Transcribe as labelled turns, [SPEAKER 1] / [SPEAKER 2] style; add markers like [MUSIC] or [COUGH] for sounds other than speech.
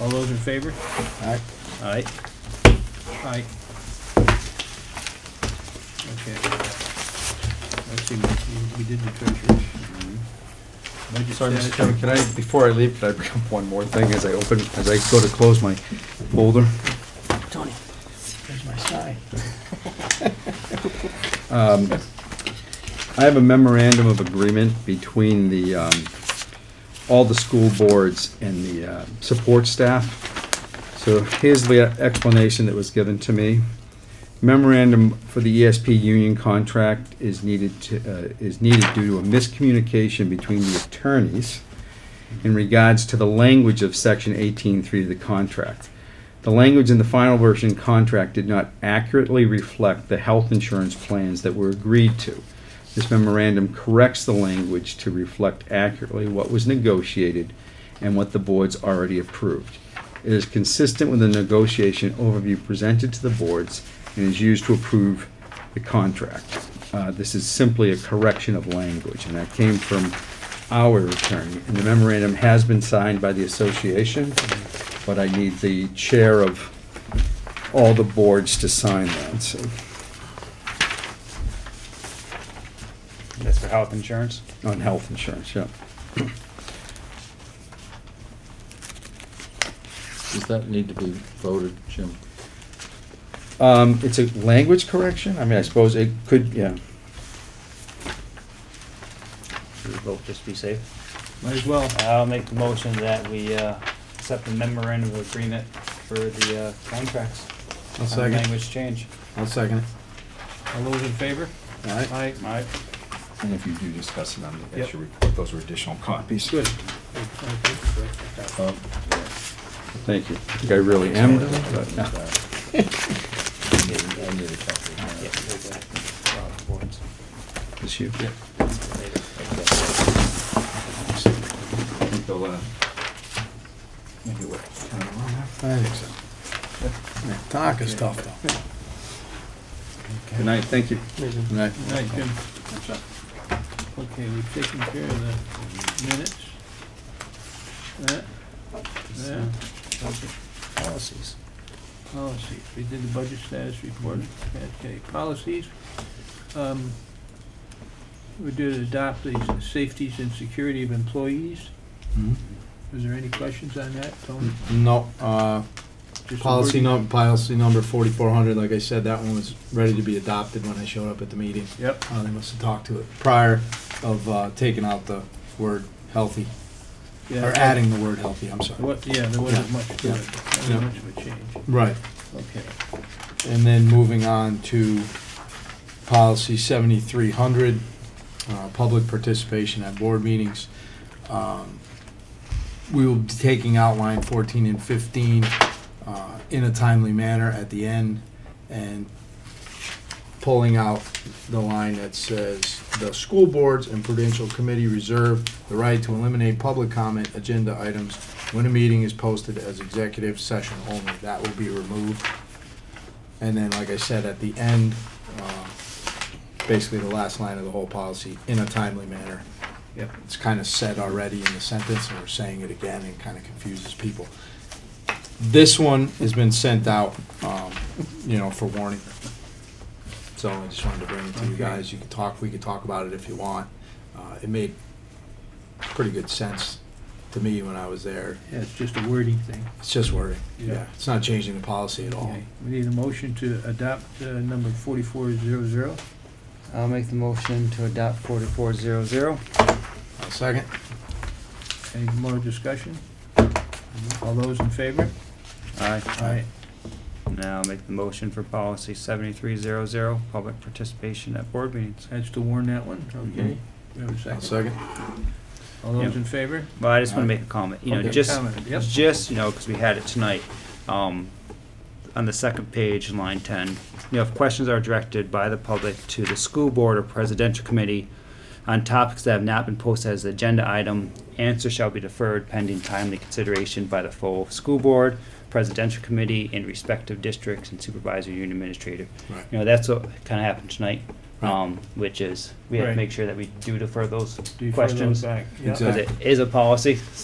[SPEAKER 1] All those in favor?
[SPEAKER 2] Aye.
[SPEAKER 1] Aye. Aye. Okay. Let's see, we- we did the treasurer's. Budget
[SPEAKER 2] Sorry, Mr.
[SPEAKER 1] status.
[SPEAKER 2] Chairman, can I, before I leave, can I bring up one more thing as I open, as I go to close my folder?
[SPEAKER 3] Tony, there's my
[SPEAKER 2] [LAUGHS]
[SPEAKER 3] sign.
[SPEAKER 2] Um, I have a memorandum of agreement between the, um, all the school boards and the, uh, support staff. So here's the explanation that was given to me. Memorandum for the ESP union contract is needed to, uh, is needed due to a miscommunication between the attorneys in regards to the language of section eighteen three of the contract. The language in the final version contract did not accurately reflect the health insurance plans that were agreed to. This memorandum corrects the language to reflect accurately what was negotiated and what the boards already approved. It is consistent with the negotiation overview presented to the boards and is used to approve the contract. Uh, this is simply a correction of language, and that came from our attorney. And the memorandum has been signed by the association, but I need the chair of all the boards to sign that, so.
[SPEAKER 4] That's for health insurance.
[SPEAKER 2] On health insurance, yeah.
[SPEAKER 5] Does that need to be voted, Jim?
[SPEAKER 2] Um, it's a language correction? I mean, I suppose it could, yeah.
[SPEAKER 4] Should we vote just to be safe?
[SPEAKER 1] Might as well.
[SPEAKER 4] I'll make the motion that we uh, accept the memorandum of agreement for the uh, contracts.
[SPEAKER 2] I'll
[SPEAKER 4] on the
[SPEAKER 2] second.
[SPEAKER 4] Language change.
[SPEAKER 2] I'll second it.
[SPEAKER 1] All those in favor? Aye.
[SPEAKER 4] Aye.
[SPEAKER 2] And if you do discuss it on the
[SPEAKER 1] Yep.
[SPEAKER 2] extra report, those are additional copies. Oh,
[SPEAKER 1] Good. Okay.
[SPEAKER 5] Oh,
[SPEAKER 2] Thank you. I think I really am. but,
[SPEAKER 5] yeah.
[SPEAKER 2] no.
[SPEAKER 5] I need a- I need a copy.
[SPEAKER 4] Yeah, we'll go around the boards
[SPEAKER 2] It's you. I
[SPEAKER 4] later.
[SPEAKER 2] think they'll, uh, maybe what, turn it around now?
[SPEAKER 3] I think so. Talk is tough, though.
[SPEAKER 2] Good night, thank you.
[SPEAKER 3] Good
[SPEAKER 2] night.
[SPEAKER 1] Aye, Jim. Okay, we've taken care of the minutes. That, that,
[SPEAKER 4] Policies.
[SPEAKER 1] policies. We did the budget status report. Okay, policies. Um, We did adopt the safeties and security of employees. Was there any questions on that, Tony?
[SPEAKER 6] No, uh,
[SPEAKER 1] Just a
[SPEAKER 6] Hmm. policy
[SPEAKER 1] word-
[SPEAKER 6] num, policy number forty-four hundred, like I said, that one was ready to be adopted when I showed up at the meeting.
[SPEAKER 1] Yep,
[SPEAKER 6] Uh, they must have talked to it prior of, uh, taking out the word healthy,
[SPEAKER 1] yeah.
[SPEAKER 6] or adding the word healthy, I'm sorry.
[SPEAKER 1] What, yeah, there wasn't much to
[SPEAKER 6] Yeah.
[SPEAKER 1] it.
[SPEAKER 6] Yeah.
[SPEAKER 1] Not much of a change.
[SPEAKER 6] Right,
[SPEAKER 1] Okay.
[SPEAKER 6] and then moving on to policy seventy-three hundred, uh, public participation at board meetings. Um, We will be taking out line fourteen and fifteen, uh, in a timely manner at the end, and pulling out the line that says, "The school boards and prudential committee reserve the right to eliminate public comment agenda items when a meeting is posted as executive session only." That will be removed. And then, like I said, at the end, uh, basically the last line of the whole policy, "In a timely manner."
[SPEAKER 1] Yep.
[SPEAKER 6] It's kind of said already in the sentence, and we're saying it again, and kind of confuses people. This one has been sent out, um, you know, for warning. So I just wanted to bring it to you
[SPEAKER 1] Okay.
[SPEAKER 6] guys. You can talk, we can talk about it if you want. Uh, It made pretty good sense to me when I was there.
[SPEAKER 1] Yeah, it's just a wording thing.
[SPEAKER 6] It's just wording.
[SPEAKER 1] Yeah.
[SPEAKER 6] Yeah, it's not changing the policy at all.
[SPEAKER 1] Okay. We need a motion to adopt uh, number 4400.
[SPEAKER 7] I'll make the motion to adopt forty-four zero zero.
[SPEAKER 6] I'll Second?
[SPEAKER 1] Any more discussion? All those in favor?
[SPEAKER 4] Aye.
[SPEAKER 1] Aye.
[SPEAKER 4] Now I'll make the motion for policy seventy-three zero zero, public participation at board meetings.
[SPEAKER 1] That's to warn that one, okay? We have a
[SPEAKER 6] I'll
[SPEAKER 1] second.
[SPEAKER 6] Second?
[SPEAKER 1] All those in favor?
[SPEAKER 4] Well, I just want to make a comment, you know,
[SPEAKER 1] Okay,
[SPEAKER 4] just,
[SPEAKER 1] comment, yep.
[SPEAKER 4] just, you know, because we had it tonight, um, on the second page, line ten, you know, if questions are directed by the public to the school board or presidential committee on topics that have not been posted as agenda item, answer shall be deferred pending timely consideration by the full school board, presidential committee, and respective districts and supervisor union administrator.
[SPEAKER 6] Right.
[SPEAKER 4] You know, that's what kind of happened tonight, um, which is, we have to
[SPEAKER 1] Right.
[SPEAKER 4] make sure that we do defer those
[SPEAKER 1] Do you further
[SPEAKER 4] questions.
[SPEAKER 1] back? Yep.
[SPEAKER 6] Exactly.
[SPEAKER 4] Because it is a policy, so